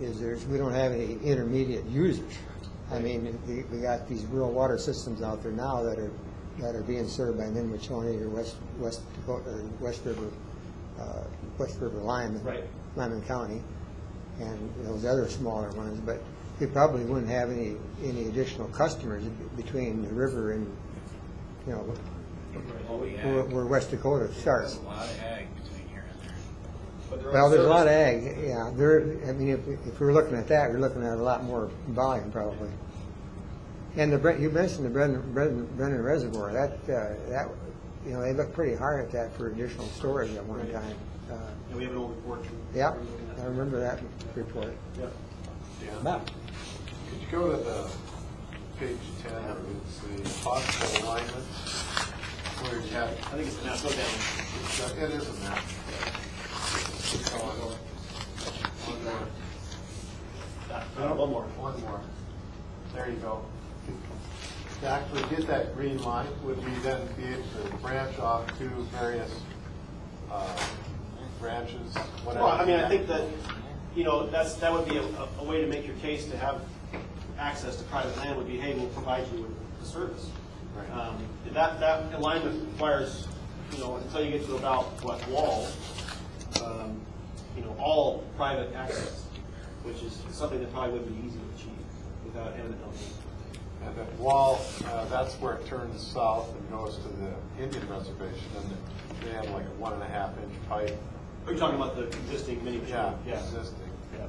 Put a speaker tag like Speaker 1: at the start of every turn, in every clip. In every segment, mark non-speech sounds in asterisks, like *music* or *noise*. Speaker 1: is there's, we don't have any intermediate users. I mean, we, we got these rural water systems out there now that are, that are being served by Minnewachuny or West, West Dakota, or West River, uh, West River Lyman.
Speaker 2: Right.
Speaker 1: Lyman County, and those other smaller ones, but we probably wouldn't have any, any additional customers between the river and, you know,
Speaker 3: Well, we
Speaker 1: where,
Speaker 3: ag,
Speaker 1: where West Dakota
Speaker 3: there's
Speaker 1: starts.
Speaker 3: a lot of ag between here and there.
Speaker 2: But there are
Speaker 1: Well, there's a lot of
Speaker 2: services-
Speaker 1: ag, yeah, there, I mean, if, if we're looking at that, we're looking at a lot more volume probably. And the, Bre- you mentioned the Brendan, Brendan Brendan Reservoir, that, uh, that, you know, they looked pretty hard at that for additional storage at one
Speaker 2: Right.
Speaker 1: time. Uh,
Speaker 2: And we have an old report. too.
Speaker 1: Yeah,
Speaker 2: We're looking at-
Speaker 1: I remember that report.
Speaker 2: Yep.
Speaker 4: Dan, could you go to the page ten, or it's the possible alignment, where you have,
Speaker 2: I think it's the Nashville Dam.
Speaker 4: it's, uh, it is a map. Oh, One more,
Speaker 2: Uh, One more.
Speaker 4: one more. There you go. To actually get that green line, would we then be able to branch off to various, uh, branches, whatever?
Speaker 2: Well, I mean, I think that, you know, that's, that would be a, a- a way to make your case to have access to private land would be, hey, we'll provide you with the service.
Speaker 4: Right.
Speaker 2: Um, and That, that alignment requires, you know, until you get to about, what, wall, um, you know, all private access, which is something that probably would be easy to achieve without eminent domain.
Speaker 4: And that wall, uh, that's where it turns south and goes to the Indian reservation, and they have like a one and a half inch pipe.
Speaker 2: Are you talking about the existing mini machine?
Speaker 4: Yeah,
Speaker 2: Yeah.
Speaker 4: existing,
Speaker 2: Yeah.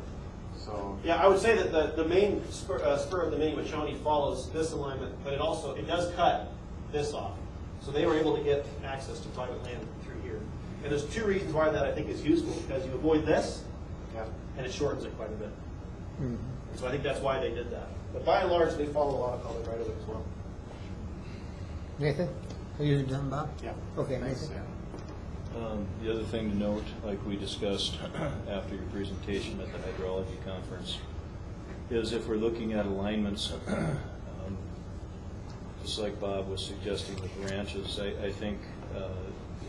Speaker 4: so.
Speaker 2: Yeah, I would say that the, the main spur, uh, spur of the mini Wachoni follows this alignment, but it also, it does cut this off. So they were able to get access to private land through here. And there's two reasons why that I think is useful, because you avoid this,
Speaker 4: Yeah.
Speaker 2: and it shortens it quite a bit. So I think that's why they did that. But by and large, they follow a lot of public right of way as well.
Speaker 1: Nathan, are you done, Bob?
Speaker 4: Yeah.
Speaker 1: Okay,
Speaker 4: Thanks,
Speaker 1: Nathan.
Speaker 4: Dan.
Speaker 5: Um, The other thing to note, like we discussed *clears throat* after your presentation at the hydrology conference, is if we're looking at alignments, *clears throat* um, just like Bob was suggesting with ranches, I, I think uh,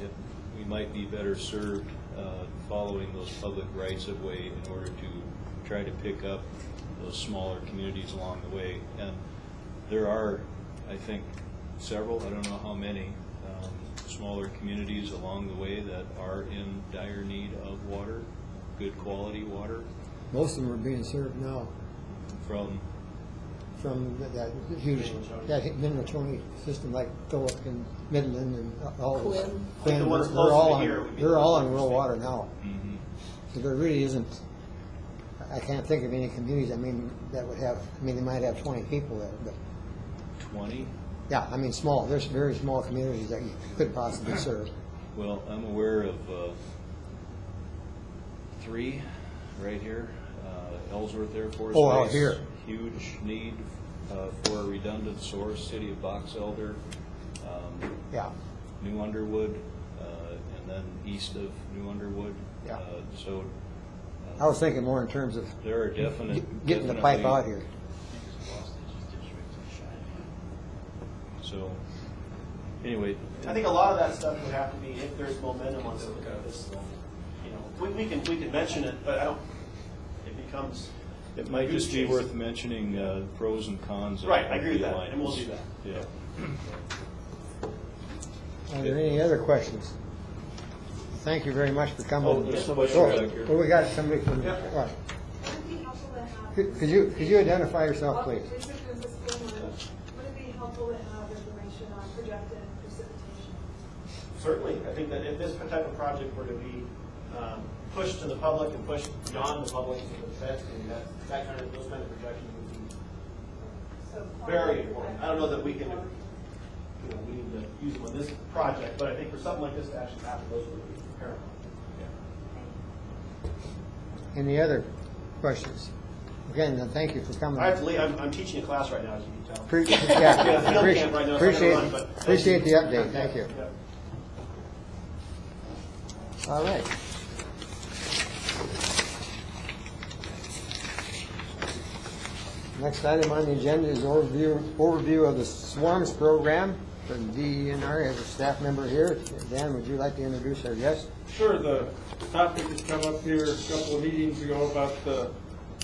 Speaker 5: it- we might be better served uh, following those public rights of way in order to try to pick up those smaller communities along the way. And there are, I think, several, I don't know how many, um, smaller communities along the way that are in dire need of water, good quality water
Speaker 1: Most of them are being served now
Speaker 5: from
Speaker 1: from that huge, that Minnetonka system like Philip and Midland and all. of them.
Speaker 2: Quinn. The ones
Speaker 1: They're
Speaker 2: closer
Speaker 1: all
Speaker 2: to
Speaker 1: on-
Speaker 2: here would be
Speaker 1: They're all on
Speaker 2: the
Speaker 1: rural
Speaker 2: most
Speaker 1: water now.
Speaker 5: mm-hmm,
Speaker 1: So there really isn't, I can't think of any communities, I mean, that would have, I mean, they might have twenty people there, but,
Speaker 5: 20.
Speaker 1: yeah, I mean, small, there's very small communities that you could possibly serve.
Speaker 5: Well, I'm aware of uh, three right here. Uh, Ellsworth Air Force Base.
Speaker 1: Oh, out here.
Speaker 5: Huge need uh, for a redundant source, city of Box Elder, um,
Speaker 1: Yeah,
Speaker 5: New Underwood, uh, and then east of New Underwood.
Speaker 1: Yeah.
Speaker 5: Uh, So
Speaker 1: I was thinking more in terms of
Speaker 5: there are definite.
Speaker 1: getting the pipe
Speaker 5: definitely-
Speaker 1: out here.
Speaker 5: So, anyway.
Speaker 2: I think a lot of that stuff would have to be if there's momentum on something like this. You know, we, we can, we can mention it, but I don't, it becomes.
Speaker 5: It might just be
Speaker 2: Goose chase.
Speaker 5: worth mentioning uh, pros and cons. of
Speaker 2: Right, I agree with
Speaker 5: the
Speaker 2: that, and we'll do
Speaker 5: alliance. Yeah.
Speaker 1: Are there any other questions? Thank you very much for coming.
Speaker 5: Oh, there's somebody
Speaker 1: Oh,
Speaker 5: back here.
Speaker 1: Well, we got somebody from, all right.
Speaker 6: Would it be helpful to have?
Speaker 1: Could could you, could you identify yourself, please?
Speaker 6: Would it be helpful to have information on projected precipitation?
Speaker 2: Certainly, I think that if this type of project were to be um, pushed to the public and pushed beyond the public to the feds, and that, that kind of, those kind of projections would be,
Speaker 6: So-
Speaker 2: Very important. I don't know that we can- you know, we need to use them on this project, but I think for something like this to actually happen, those would be paramount.
Speaker 1: Any other questions? Again, then thank you for coming.
Speaker 2: I have to leave, I'm, I'm teaching a class right now, as you can tell. *laughs*
Speaker 1: Pre-
Speaker 2: Yeah,
Speaker 1: yeah,
Speaker 2: field
Speaker 1: Appreciate,
Speaker 2: camp right now, so I gotta run, but
Speaker 1: appreciate- appreciate
Speaker 2: thank
Speaker 1: the
Speaker 2: you.
Speaker 1: update, thank you.
Speaker 2: Yeah.
Speaker 1: All right. Next item on the agenda is overview, overview of the swarms program E from DENR. As a staff member here, Dan, would you like to introduce our guest?
Speaker 7: Sure, the topic that come up here a couple of meetings ago about the